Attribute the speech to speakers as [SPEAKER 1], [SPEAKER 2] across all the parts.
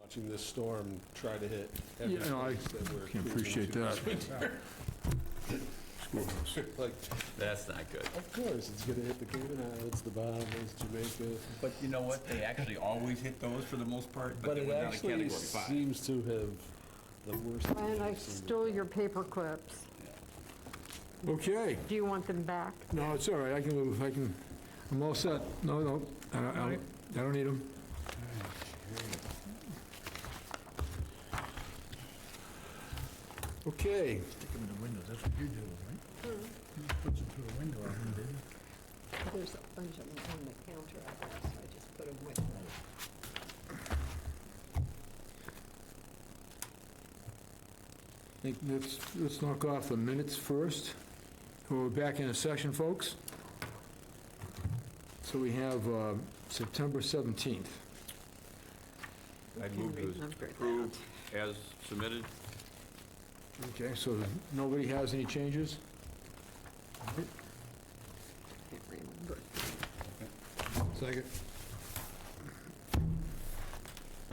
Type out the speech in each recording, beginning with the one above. [SPEAKER 1] watching this storm try to hit every
[SPEAKER 2] Yeah, no, I
[SPEAKER 1] place that we're.
[SPEAKER 2] Can appreciate
[SPEAKER 1] cruising
[SPEAKER 2] that.
[SPEAKER 1] to. Like,
[SPEAKER 3] That's not good.
[SPEAKER 1] of course, it's gonna hit the Cayman Islands, the Bahamas, Jamaica,
[SPEAKER 3] But you know what? They actually always hit those for the most part, but
[SPEAKER 1] but
[SPEAKER 3] they
[SPEAKER 1] it
[SPEAKER 3] went down to
[SPEAKER 1] actually
[SPEAKER 3] category five.
[SPEAKER 1] seems to have the worst.
[SPEAKER 4] Ryan, I
[SPEAKER 1] I've seen.
[SPEAKER 4] stole your paper clips.
[SPEAKER 2] Okay,
[SPEAKER 4] Do you want them back?
[SPEAKER 2] no, it's all right, I can move, I can, I'm all set. No, no, I don't, I don't- I don't need them. Okay,
[SPEAKER 5] Stick them in the windows, that's what you do, right? You put them through a window, I think, didn't you?
[SPEAKER 4] There's a bunch of them on the counter, I guess, so I just put them with me.
[SPEAKER 2] I think let's, let's knock off the minutes first. We're back in a session, folks. So we have uh, September 17th.
[SPEAKER 3] I
[SPEAKER 4] Can
[SPEAKER 3] moved to
[SPEAKER 4] remember that.
[SPEAKER 3] approve as submitted.
[SPEAKER 2] Okay, so nobody has any changes?
[SPEAKER 4] Can't remember.
[SPEAKER 2] Second.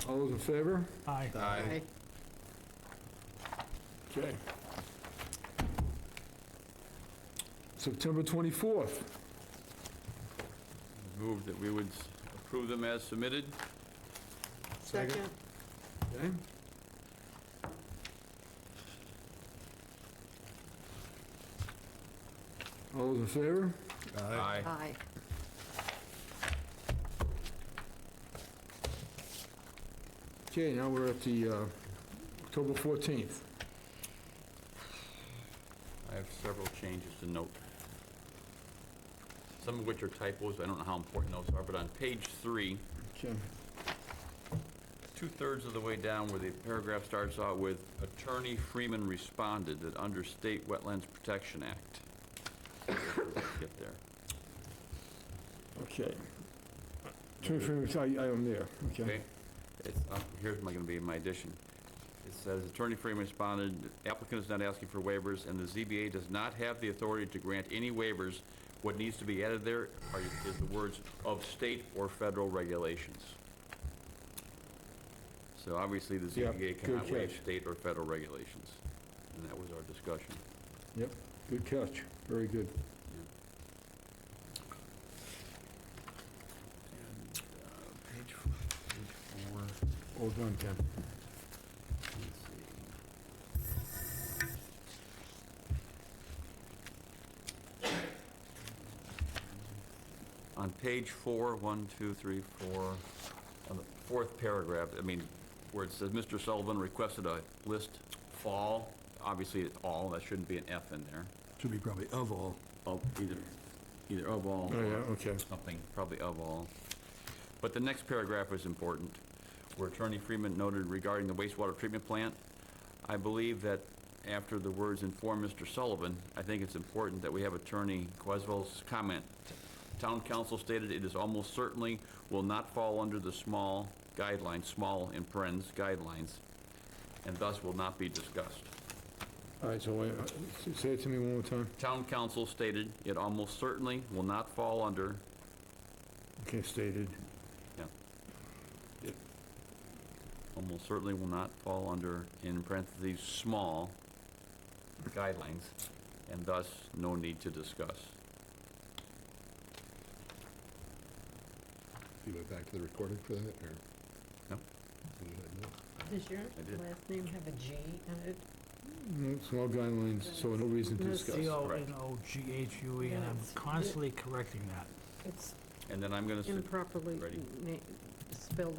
[SPEAKER 2] All those in favor?
[SPEAKER 5] Aye.
[SPEAKER 3] Aye.
[SPEAKER 2] Okay. September 24th.
[SPEAKER 3] Moved that we would s- approve them as submitted.
[SPEAKER 4] Second,
[SPEAKER 2] Okay. All those in favor?
[SPEAKER 3] Aye.
[SPEAKER 4] aye.
[SPEAKER 2] Okay, now we're at the uh, October 14th.
[SPEAKER 3] I have several changes to note. Some of which are typos. I don't know how important those are, but on page three,
[SPEAKER 2] Okay.
[SPEAKER 3] two-thirds of the way down where the paragraph starts out with, Attorney Freeman responded that under State Wetlands Protection Act. Get there.
[SPEAKER 2] Okay. Two, three, I I am there, okay.
[SPEAKER 3] Okay, it's, uh, here's my, gonna be my addition. It says, Attorney Freeman responded, applicant is not asking for waivers, and the ZBA does not have the authority to grant any waivers. What needs to be added there are, is the words of state or federal regulations. So obviously, the
[SPEAKER 2] Yeah,
[SPEAKER 3] ZBA
[SPEAKER 2] good
[SPEAKER 3] cannot waive
[SPEAKER 2] catch.
[SPEAKER 3] state or federal regulations, and that was our discussion.
[SPEAKER 2] Yep, good catch, very good.
[SPEAKER 3] And, uh, Page four- page four.
[SPEAKER 2] All done, Ken.
[SPEAKER 3] On page four, one, two, three, four, on the fourth paragraph, I mean, where it says, Mr. Sullivan requested a list fall, obviously it's all, that shouldn't be an F in there,
[SPEAKER 5] Should be probably of all.
[SPEAKER 3] of either, either of all.
[SPEAKER 2] Oh, yeah,
[SPEAKER 3] or
[SPEAKER 2] okay.
[SPEAKER 3] Something, probably of all. But the next paragraph is important, where Attorney Freeman noted regarding the wastewater treatment plant. I believe that after the words inform Mr. Sullivan, I think it's important that we have Attorney Quazvo's comment. Town council stated it is almost certainly will not fall under the small guidelines, small in parens guidelines, and thus will not be discussed.
[SPEAKER 2] All right, so wait, uh, s- say it to me one more time.
[SPEAKER 3] Town council stated it almost certainly will not fall under,
[SPEAKER 2] Okay, stated.
[SPEAKER 3] yeah. Almost certainly will not fall under, in parentheses, small guidelines, and thus no need to discuss.
[SPEAKER 1] You went back to the recording for that, or?
[SPEAKER 3] No.
[SPEAKER 1] You didn't know?
[SPEAKER 4] Does your
[SPEAKER 3] I did.
[SPEAKER 4] last name have a G in it?
[SPEAKER 2] Mm, Small guidelines, so no reason to
[SPEAKER 4] No,
[SPEAKER 2] discuss.
[SPEAKER 5] C O
[SPEAKER 3] correct.
[SPEAKER 5] N O G H U
[SPEAKER 1] um,
[SPEAKER 5] E, and I'm
[SPEAKER 4] Yes.
[SPEAKER 5] constantly correcting that.
[SPEAKER 4] It's
[SPEAKER 3] And then I'm gonna, su-
[SPEAKER 4] improperly
[SPEAKER 3] ready.
[SPEAKER 4] na- spelled